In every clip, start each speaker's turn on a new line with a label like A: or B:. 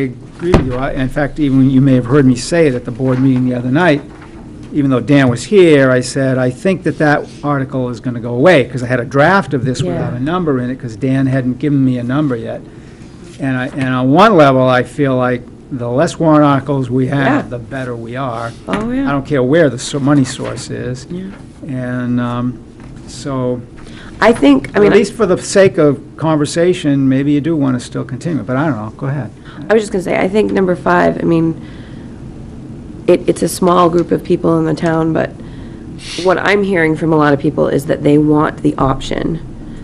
A: I agree with you. I- In fact, even you may have heard me say it at the board meeting the other night, even though Dan was here, I said, I think that that article is going to go away, because I had a draft of this without
B: Yeah.
A: a number in it, because Dan hadn't given me a number yet. And I, and on one level, I feel like the less warrant articles we
B: Yeah.
A: have, the better we are.
B: Oh,
A: I
B: yeah.
A: don't care where the so- money source is.
B: Yeah.
A: And um, so,
B: I think, I
A: at
B: mean, I
A: least for the sake of conversation, maybe you do want to still continue, but I don't know, go ahead.
B: I was just going to say, I think number five, I mean, it, it's a small group of people in the town, but what I'm hearing from a lot of people is that they want the option.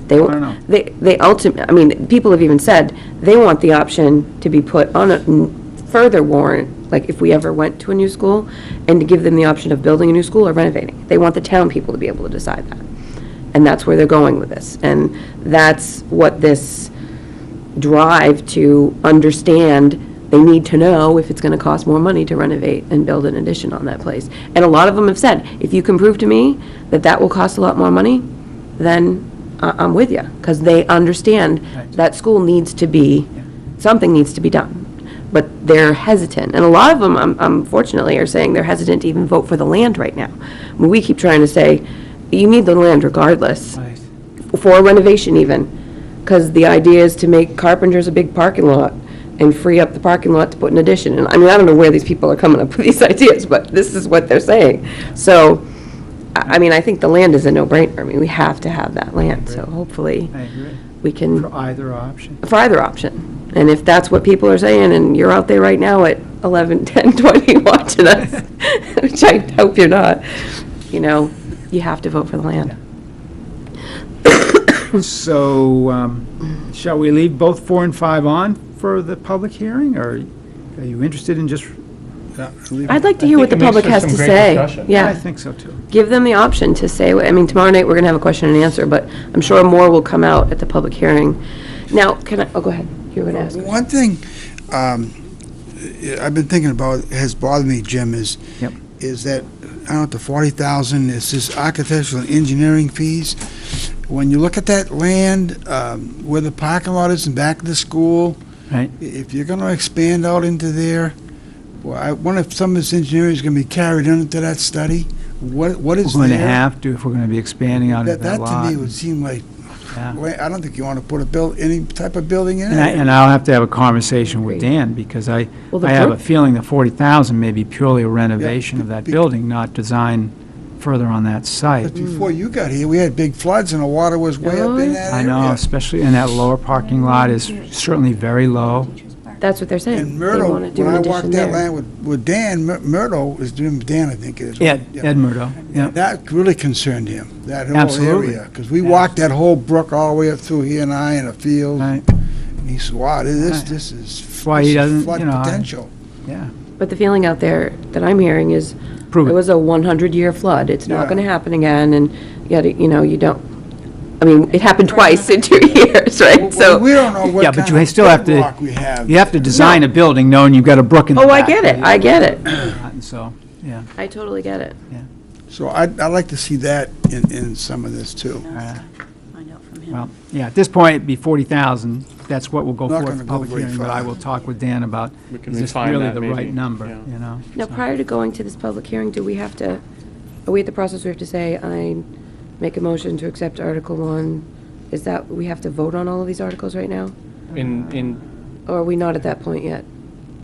B: They,
A: don't know.
B: they, they ultimately, I mean, people have even said, they want the option to be put on a n- further warrant, like if we ever went to a new school, and to give them the option of building a new school or renovating. They want the town people to be able to decide that. And that's where they're going with this. And that's what this drive to understand, they need to know if it's going to cost more money to renovate and build an addition on that place. And a lot of them have said, if you can prove to me that that will cost a lot more money, then I- I'm with you, because they understand
A: Right.
B: that school needs to be,
A: Yeah.
B: something needs to be done. But they're hesitant, and a lot of them, um, unfortunately, are saying they're hesitant to even vote for the land right now. I mean, We keep trying to say, you need the land regardless for renovation even, because the idea is to make Carpenter's a big parking lot and free up the parking lot to put an addition. And I mean, I don't know where these people are coming up with these ideas, but this is what they're saying. So, I I mean, I think the land is a no-brainer. I mean, we have to have that land, so hopefully
A: I agree.
B: we can,
A: For either option.
B: for either option. And if that's what people are saying, and you're out there right now at 11, 10, 20 watching us, which I hope you're not, you know, you have to vote for the land.
A: So, um, shall we leave both four and five on for the public hearing, or are you interested in just? uh,
B: I'd like to
C: I
B: hear what the
C: think it
B: public
C: makes
B: has
C: for
B: to
C: some great
B: say.
C: discussion.
A: I
B: Yeah,
A: think so, too.
B: give them the option to say, what- I mean, tomorrow night, we're going to have a question and answer, but I'm sure more will come out at the public hearing. Now, can I, oh, go ahead, you were going to ask.
D: One thing um, I- I've been thinking about, has bothered me, Jim, is,
A: Yep.
D: is that, I don't know, the 40,000, is this architectural and engineering fees. When you look at that land, um, where the parking lot is in back of the school.
A: Right.
D: i- If you're going to expand out into there, well, I wonder if some of this engineering is going to be carried into that study? What, what
A: We're
D: is there?
A: going to have to, if we're going to be expanding on
D: That,
A: that
D: that to
A: lot.
D: me would seem like,
A: yeah.
D: well, I don't think you want to put a buil, any type of building in
A: And I-
D: it.
A: And I'll have to have a conversation with
B: Agreed.
A: Dan, because I,
B: Well, the
A: I have
B: per-
A: a feeling the 40,000 may be purely a renovation of that
D: be-
A: building, not design further on that site.
D: But before you got here, we had big floods and the water was way up in that
A: I
D: area.
A: know, especially, and that lower parking lot is certainly very low.
B: That's what they're saying.
D: And
B: They
D: Myrtle,
B: want to do
D: when
B: an
D: I
B: addition
D: walked that
B: there.
D: land with, with Dan, Myr- Myrtle is doing, Dan, I think it is.
A: Ed, Ed Murdo, yeah.
D: That really concerned him, that whole
A: Absolutely.
D: area. Because we walked that whole brook all the way up through here and I in a field.
A: Right.
D: And he said, wow, this,
A: Right.
D: this is
A: why he
D: this is
A: doesn't,
D: flood
A: you know, I-
D: potential.
B: But the feeling out there that I'm hearing is, it
A: Prove it.
B: was a 100-year flood, it's not
D: Yeah.
B: going to happen again, and yet, you know, you don't, I mean, it happened twice in two years, right?
D: Well,
B: So,
D: We don't know
A: Yeah,
D: what
A: but
D: kind
A: you
D: of
A: still have to-
D: bedrock we have.
A: You have to design a building knowing you've got a brook in the
B: oh, I
A: back.
B: get it, I get it,
A: And So, yeah,
B: I totally get it.
D: So I'd, I'd like to see that in, in some of this too.
A: uh,
E: Find out from him.
A: well, yeah, at this point, it'd be 40,000. That's what we'll go
D: Not
A: for
D: gonna
A: the
D: go
A: public
D: very
A: hearing, but
D: far.
A: I will talk with Dan about,
C: We can
A: is this
C: refine
A: really
C: that
A: the
C: maybe,
A: right number,
C: yeah.
A: you know?
B: Now,
A: So-
B: prior to going to this public hearing, do we have to, are we at the process we have to say, I make a motion to accept Article 1? Is that, we have to vote on all of these articles right now?
C: In, in,
B: Or are we not at that point yet?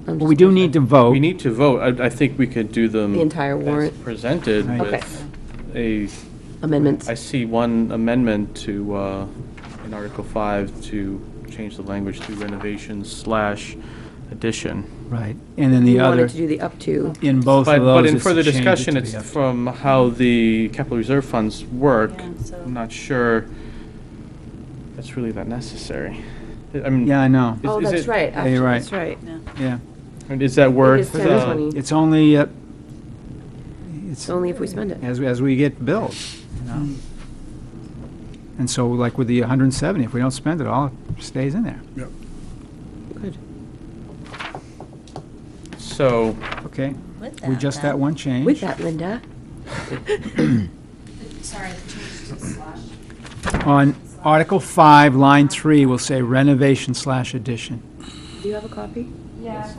B: I'm
A: Well, we
B: just-
A: do need to vote.
C: we need to vote. I, I think we could do them.
B: The entire
C: as
B: warrant.
C: Presented
A: Right.
C: with a,
B: Amendments.
C: I see one amendment to, uh, in Article 5, to change the language to renovation slash addition.
A: Right, and then the
B: We
A: other,
B: wanted to do the up to.
A: in both
C: But,
A: of
C: but
A: those
C: in
A: is to
C: further
A: change it
C: discussion,
A: to
C: it's
A: the up-
C: from how the capital reserve funds work.
E: Yeah, so-
C: I'm not sure that's really that necessary. I mean.
A: Yeah, I know,
C: Is-
B: Oh,
C: is
B: that's
C: it-
B: right,
A: Yeah,
B: actually,
A: you're
B: that's right.
A: yeah.
C: Is that worth?
B: 10,
C: uh,
B: 20.
A: It's only, uh, it's,
B: It's only if we Hmm. spend it.
A: as, as we get billed, you know? And so like with the 170, if we don't spend it all, it stays in there.
B: Good.
C: So.
A: Okay,
E: With
A: we just that
E: then-
A: one change.
B: With that, Linda.
F: Sorry, the change to slash.
A: On Article 5, Line 3, we'll say renovation slash addition.
B: Do you have a copy?
F: Yeah, I
C: Yes.
F: thought